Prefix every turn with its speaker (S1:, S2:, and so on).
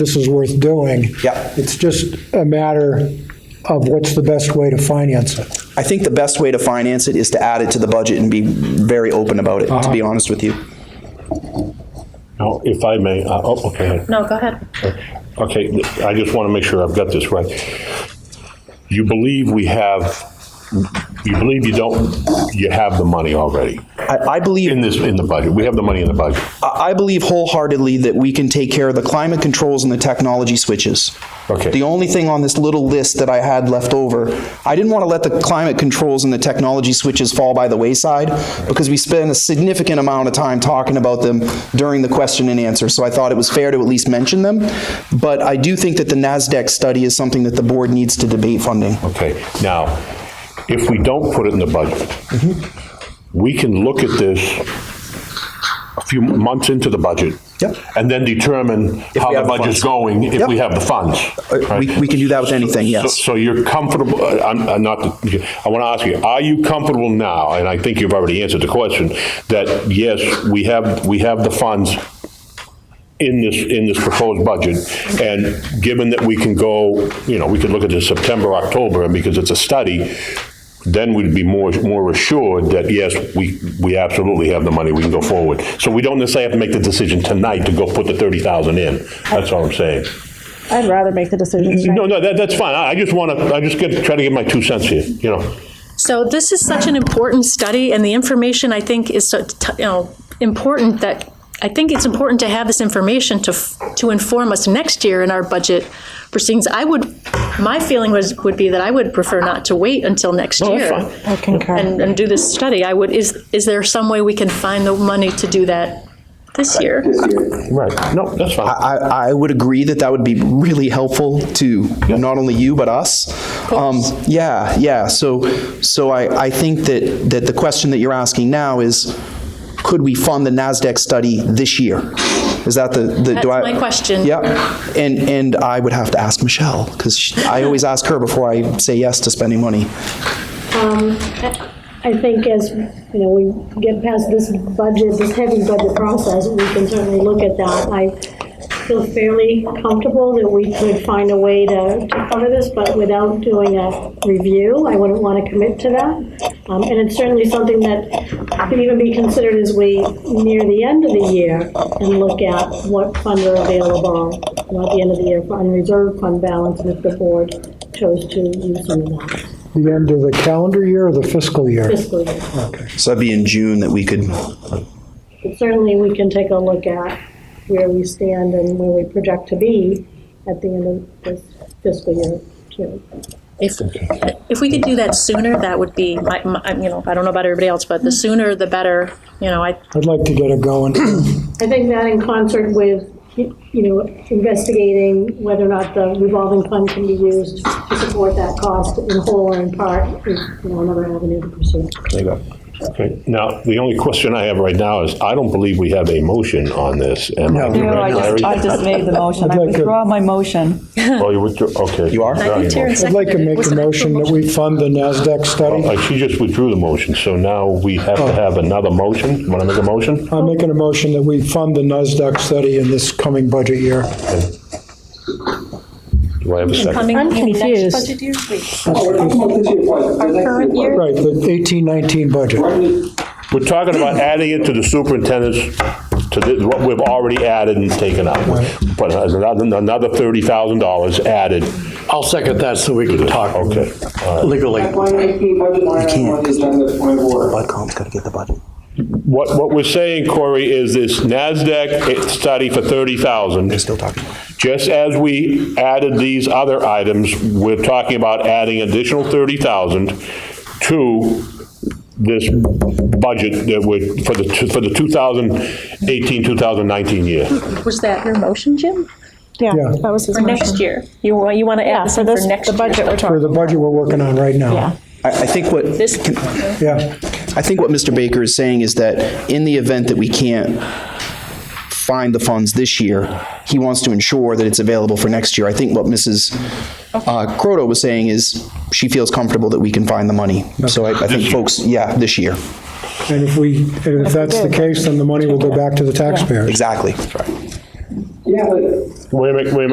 S1: this is worth doing.
S2: Yep.
S1: It's just a matter of what's the best way to finance it.
S2: I think the best way to finance it is to add it to the budget and be very open about it, to be honest with you.
S3: Now, if I may, uh, oh, okay.
S4: No, go ahead.
S3: Okay, I just want to make sure I've got this right. You believe we have, you believe you don't, you have the money already
S2: I, I believe.
S3: in this, in the budget. We have the money in the budget.
S2: I I believe wholeheartedly that we can take care of the climate controls and the technology switches.
S3: Okay.
S2: The only thing on this little list that I had left over, I didn't want to let the climate controls and the technology switches fall by the wayside because we spent a significant amount of time talking about them during the question and answer. So I thought it was fair to at least mention them. But I do think that the NASDAQ study is something that the board needs to debate funding.
S3: Okay, now, if we don't put it in the budget,
S2: Mm-hmm.
S3: we can look at this a few months into the budget.
S2: Yep.
S3: And then determine how
S2: we
S3: the
S2: have the funds.
S3: budget's going, if
S2: Yep.
S3: we have the funds.
S2: Uh, We,
S3: right?
S2: we can do that with anything,
S3: So-
S2: yes.
S3: So you're comfortable, uh, I'm I'm not, I want to ask you, are you comfortable now, and I think you've already answered the question, that yes, we have, we have the funds in this, in this proposed budget, and given that we can go, you know, we could look at this September, October, and because it's a study, then we'd be more, more assured that yes, we, we absolutely have the money, we can go forward. So we don't necessarily have to make the decision tonight to go put the 30,000 in, that's all I'm saying.
S4: I'd rather make the decision.
S3: No, no, that, that's fine. I, I just want to, I just get, try to get my two cents here, you know.
S4: So this is such an important study, and the information I think is so, t- you know important that I think it's important to have this information to f- to inform us next year in our budget proceedings. I would, my feeling was would be that I would prefer not to wait until next
S3: No, that's
S4: year
S3: fine.
S5: I concur.
S4: and, and do this study. I would is is there some way we can find the money to do that this year?
S3: Right. No, that's fine.
S2: I, I would agree that that would be really helpful to not only you but us. Um, yeah, yeah. So, so I, I think that that the question that you're asking now is, could we fund the Nasdaq study this year? Is that the, the
S4: That's
S2: do I?
S4: my question.
S2: Yeah, and and I would have to ask Michelle because I always ask her before I say yes to spending money.
S6: Um, I think as, you know, we get past this budget, this heavy budget process, we can certainly look at that. I feel fairly comfortable that we could find a way to to cover this, but without doing a review, I wouldn't want to commit to that. Um, And it's certainly something that can even be considered as we near the end of the year and look at what funds are available, you know, at the end of the year, for unreserved fund balance, and if the board chose to use some of that
S1: The end of the calendar year or the fiscal year?
S6: fiscal year.
S2: So that'd be in June that we could.
S6: But certainly, we can take a look at where we stand and where we project to be at the end of this fiscal year, too.
S4: If, if we could do that sooner, that would be, my, my, you know, I don't know about everybody else, but the sooner the better, you know, I,
S1: I'd like to get it going.
S6: I think that in concert with, you know, investigating whether or not the revolving fund can be used to support that cost in whole or in part is, you know, another avenue to pursue.
S3: There you go. Okay. Now, the only question I have right now is, I don't believe we have a motion on this. Am I
S5: No, I
S3: correct,
S5: just, I
S3: Larry?
S5: just made the motion. I
S1: like to-
S5: withdraw my motion.
S3: Oh, you withdrew, okay.
S2: You are?
S3: Sorry,
S4: I think Terrence
S3: motion.
S1: I'd like to
S4: seconded it.
S1: make
S4: Was
S1: a
S4: it an
S1: motion
S4: actual
S1: that we fund the NASDAQ study.
S3: Uh, She just withdrew the motion, so now we have to have another motion. Want to make a motion?
S1: I'm making a motion that we fund the NASDAQ study in this coming budget year.
S3: Do I have a second?
S4: Coming,
S7: I'm
S4: maybe next
S7: confused.
S4: budget year? Wait,
S8: We're not talking this year, budget. The next
S7: current
S8: budget.
S1: Right, the 1819 budget.
S8: Currently,
S3: We're talking about adding it to the superintendent's, to the- what we've already added and taken out. But uh, another another $30,000 added.
S9: I'll second that so we can talk
S3: Okay.
S9: legally.
S8: FY19 budget line item on the agenda is point of order.
S2: Budcom's got to get the budget.
S3: What, what we're saying, Corey, is this NASDAQ study for 30,000.
S2: Still talking.
S3: Just as we added these other items, we're talking about adding additional 30,000 to this budget that we're, for the, two- for the 2018, 2019 year.
S4: Was that your motion, Jim?
S7: Yeah,
S1: Yeah.
S7: that was his
S4: For
S7: motion.
S4: next year? You, wa- you want to
S7: Yeah,
S4: add this
S7: so
S4: in for
S7: this,
S4: next
S7: the
S4: year?
S7: budget we're
S1: For
S7: talking.
S1: the budget we're working on right now.
S7: Yeah.
S2: I, I think what.
S4: This-
S2: can-
S1: Yeah.
S2: I think what Mr. Baker is saying is that in the event that we can't find the funds this year, he wants to ensure that it's available for next year. I think what Mrs. uh, Croto was saying is she feels comfortable that we can find the money. So I I think folks, yeah, this year,
S1: And if we, and if that's the case, then the money will go back to the taxpayers.
S2: exactly.
S8: Yeah, but
S3: Wait a minute, wait a minute.